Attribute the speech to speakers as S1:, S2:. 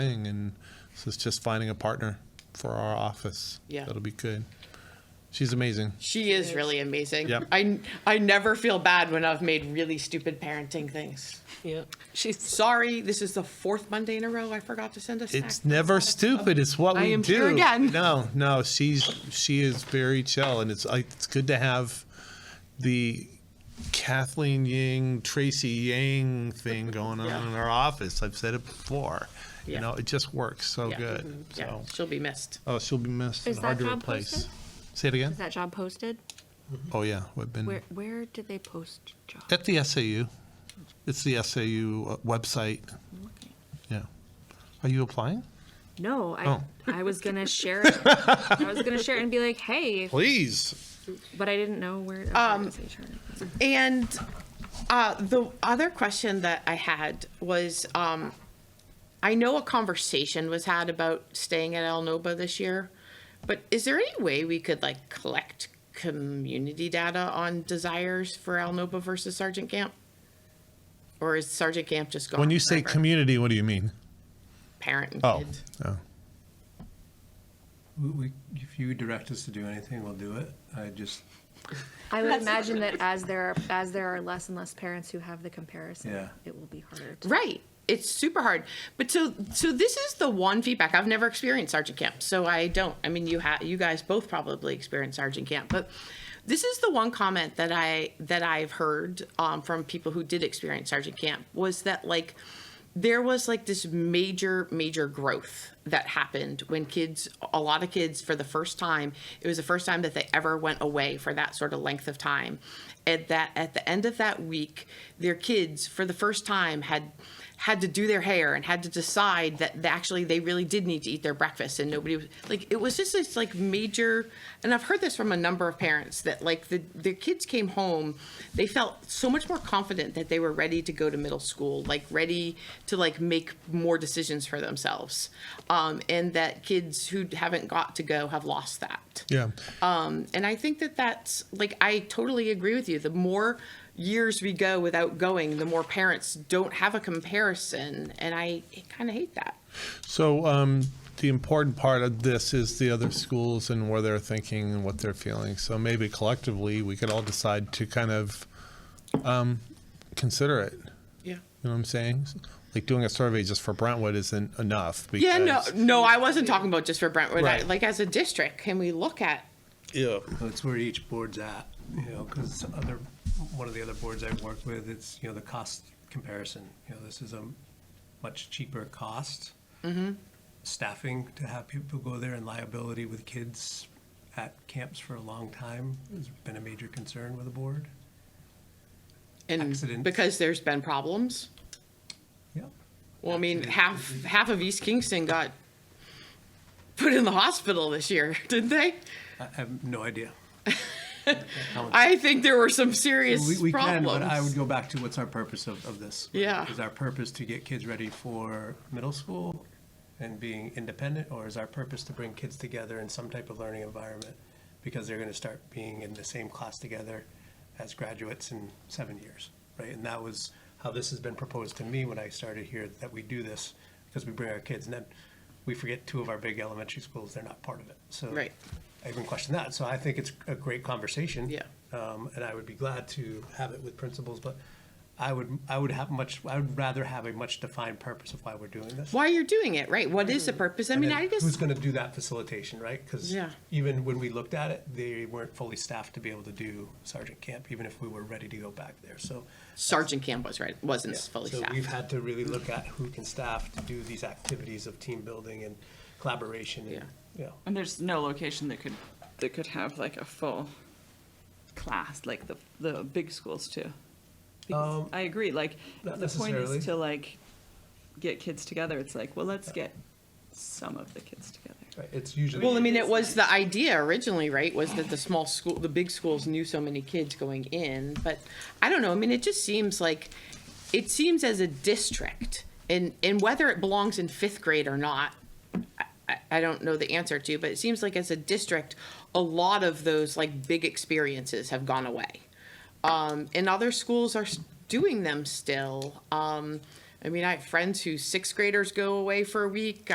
S1: thing, and so it's just finding a partner for our office.
S2: Yeah.
S1: That'll be good. She's amazing.
S2: She is really amazing.
S1: Yep.
S2: I, I never feel bad when I've made really stupid parenting things.
S3: Yeah, she's.
S2: Sorry, this is the fourth Monday in a row I forgot to send a snack.
S1: It's never stupid. It's what
S3: I
S1: we
S3: am
S1: do.
S3: here again.
S1: No, no, she's she is very chill, and it's like it's good to have the Kathleen Ying, Tracy Yang thing going on
S2: Yeah.
S1: in our office. I've said it before.
S2: Yeah.
S1: You know, it just works so
S2: Yeah.
S1: good.
S2: Mhm.
S1: So,
S2: Yeah, she'll be missed.
S1: oh, she'll be missed
S4: Is
S1: and hard
S4: that
S1: to
S4: job
S1: replace.
S4: posted?
S1: Say it again.
S4: Is that job posted?
S1: Oh yeah, we've been
S4: Where where did they post job?
S1: At the SAU. It's the SAU uh, website. Yeah. Are you applying?
S4: No, I
S1: Oh.
S4: I was gonna share it. I was gonna share it and be like, hey,
S1: Please.
S4: but I didn't know where. okay, it's HR.
S2: And uh, the other question that I had was, um, I know a conversation was had about staying at El Nova this year, but is there any way we could like collect community data on desires for El Nova versus Sergeant Camp? Or is Sergeant Camp just gone?
S1: When you say
S2: forever?
S1: community, what do you mean?
S2: Parent and
S1: Oh.
S2: kid.
S1: Oh.
S5: We- We, if you direct us to do anything, we'll do it. I just,
S4: I would imagine that as there are as there are less and less parents who have the comparison,
S5: Yeah.
S4: it will be harder. To,
S2: Right. It's super hard. But so so this is the one feedback I've never experienced sergeant camp. So I don't. I mean you ha- you guys both probably experienced sergeant camp, but this is the one comment that I that I've heard um, from people who did experience sergeant camp was that like there was like this major major growth that happened when kids a lot of kids for the first time it was the first time that they ever went away for that sort of length of time and that at the end of that week their kids for the first time had had to do their hair and had to decide that they actually they really did need to eat their breakfast and nobody was like it was just this like major and i've heard this from a number of parents that like the their kids came home they felt so much more confident that they were ready to go to middle school like ready to like make more decisions for themselves um, and that kids who haven't got to go have lost that Um,
S1: Yeah.
S2: and I think that that's like I totally agree with you. The more years we go without going, the more parents don't have a comparison, and I kind of hate that.
S1: So um, the important part of this is the other schools and where they're thinking and what they're feeling. So maybe collectively, we could all decide to kind of um, consider it.
S2: Yeah.
S1: You know what I'm saying? Like doing a survey just for Brentwood isn't enough. Because
S2: Yeah. No. No, I wasn't talking about just for Brentwood. I-
S1: Right.
S2: like as a district, can we look at?
S1: Yeah.
S5: that's where each board's at, you know, because other, one of the other boards I've worked with, it's, you know, the cost comparison. You know, this is a much cheaper cost. Staffing to have people go there and liability with kids at camps for a long time has been a major concern with the board.
S2: And
S5: Accidents.
S2: because there's been problems.
S5: Yeah.
S2: Well, I mean,
S5: Accidents.
S2: half half of East Kingston got put in the hospital this year, didn't they?
S5: I I have no idea.
S2: I think there were some serious
S5: We, we can,
S2: problems.
S5: but I would go back to what's our purpose of, of this?
S2: Yeah.
S5: Is our purpose to get kids ready for middle school and being independent, or is our purpose to bring kids together in some type of learning environment? Because they're gonna start being in the same class together as graduates in seven years, right? And that was how this has been proposed to me when I started here, that we do this, because we bring our kids, and then we forget two of our big elementary schools, they're not part of it, so.
S2: Right.
S5: I even question that. So I think it's a great conversation.
S2: Yeah.
S5: Um, and I would be glad to have it with principals, but I would, I would have much, I would rather have a much defined purpose of why we're doing this.
S2: Why you're doing it, right? What is the purpose? I
S5: Mm-hmm. And
S2: mean,
S5: then
S2: I just
S5: Who's gonna do that facilitation, right? Because
S2: Yeah.
S5: even when we looked at it, they weren't fully staffed to be able to do sergeant camp, even if we were ready to go back there, so.
S2: Sergeant Camp was right, wasn't
S5: Yeah.
S2: fully
S5: So we've
S2: staffed.
S5: had to really look at who can staff to do these activities of team building and collaboration and, you know.
S3: And there's no location that could, that could have like a full class, like the, the big schools too. Because
S5: Um,
S3: I agree, like,
S5: not
S3: the point
S5: necessarily.
S3: is to like, get kids together, it's like, well, let's get some of the kids together.
S5: Right, It's usually.
S2: Well, I mean, it was the idea originally, right, was that the small school, the big schools knew so many kids going in, but I don't know, I mean, it just seems like, it seems as a district, and, and whether it belongs in fifth grade or not, I- I, I don't know the answer to, but it seems like as a district, a lot of those like big experiences have gone away. Um, and other schools are s- doing them still. Um, I mean, I have friends whose sixth graders go away for a week.